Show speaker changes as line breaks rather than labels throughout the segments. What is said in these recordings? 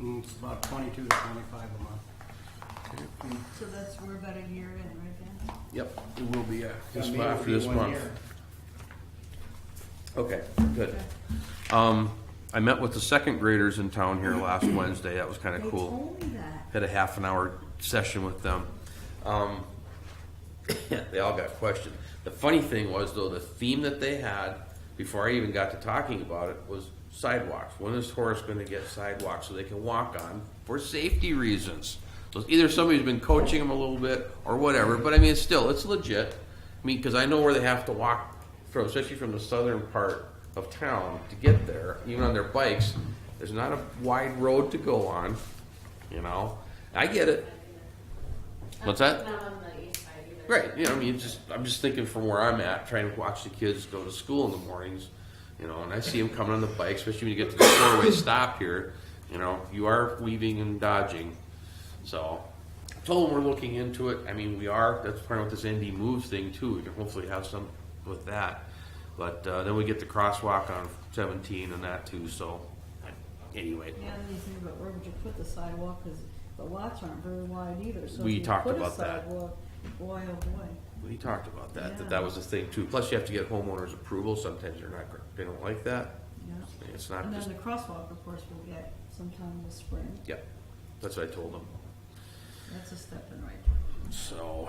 Mm, It's about twenty-two to twenty-five a month.
So that's, we're about a year in right now.
Yep, it will be, uh,
Yeah,
this
maybe it'll
month,
be
this
one
month.
year.
Okay, good. Um, I met with the second graders in town here last Wednesday, that was kinda
They
cool.
told me that.
had a half an hour session with them. Um, they all got questions. The funny thing was though, the theme that they had before I even got to talking about it was sidewalks. When is Horace going to get sidewalks so they can walk on for safety reasons? So it's either somebody's been coaching them a little bit or whatever, but I mean, it's still it's legit. I mean, because I know where they have to walk from, especially from the southern part of town to get there, even on their bikes. There's not a wide road to go on, you know. I get it. What's that?
Not on the east side either.
Right. You know, I mean, just I'm just thinking from where I'm at, trying to watch the kids go to school in the mornings, you know, and I see them coming on the bike, especially when you get to the four-way stop here. You know, you are weaving and dodging. So, I told them we're looking into it. I mean, we are. That's part of this ND moves thing too. We can hopefully have some with that. But uh, then we get the crosswalk on 17 and that too. So, anyway,
Yeah, and you think about where would you put the sidewalk, cause the lots aren't very wide either, so. if
We
you
talked
put a
about that.
sidewalk, Boy, oh boy.
we talked about that. That
Yeah.
that was the thing too. Plus, you have to get homeowners' approval. Sometimes they're not. gr- They don't like that.
Yeah.
It's not
And
just
then the crosswalk, of course, we'll get sometime this spring.
Yeah, that's what I told them.
That's a step in the right. direction.
So,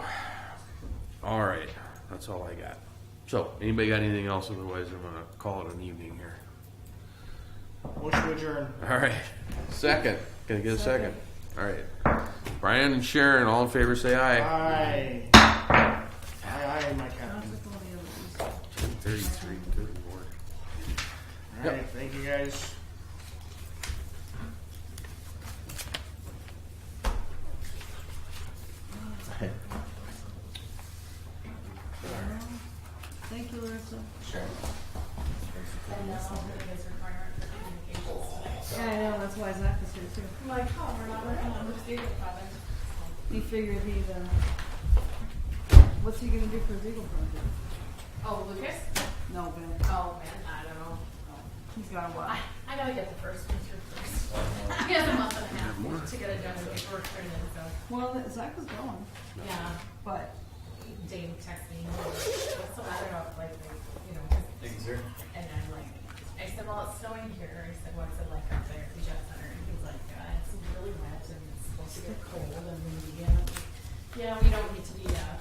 all right, that's all I got. So, anybody got anything else? Otherwise, I'm gonna call it an evening here.
Motion to adjourn.
All right, second. Can I get a second? All right. Brian and Sharon, all in favor, say aye.
Aye. Aye, aye, my captain.
How's it going the other way?
Thirty-three, good lord.
All right, thank you guys.
Thank you, Larissa.
And that's all the biggest requirement for communications today.
Yeah, I know, that's why Zach is here too.
I'm like, oh, we're not working on the student project.
He figured he'd, uh, what's he gonna do for his Eagle project?
Oh, Lucas?
No, Ben,
Oh, man, I don't know.
he's got a while.
I know he has the first, he's your first. He has a month and a half to get it done, and paperwork turned in, so,
Well, Zach was going,
yeah.
but
Dane texted me, so I don't know, if, like, they, you know. And I'm like, I said, well, it's snowing here, I said, what's it like up there at the jet center? And he's like, uh, it's really wet and it's supposed to get cold and windy, and I'm like, yeah, we don't need to be, uh,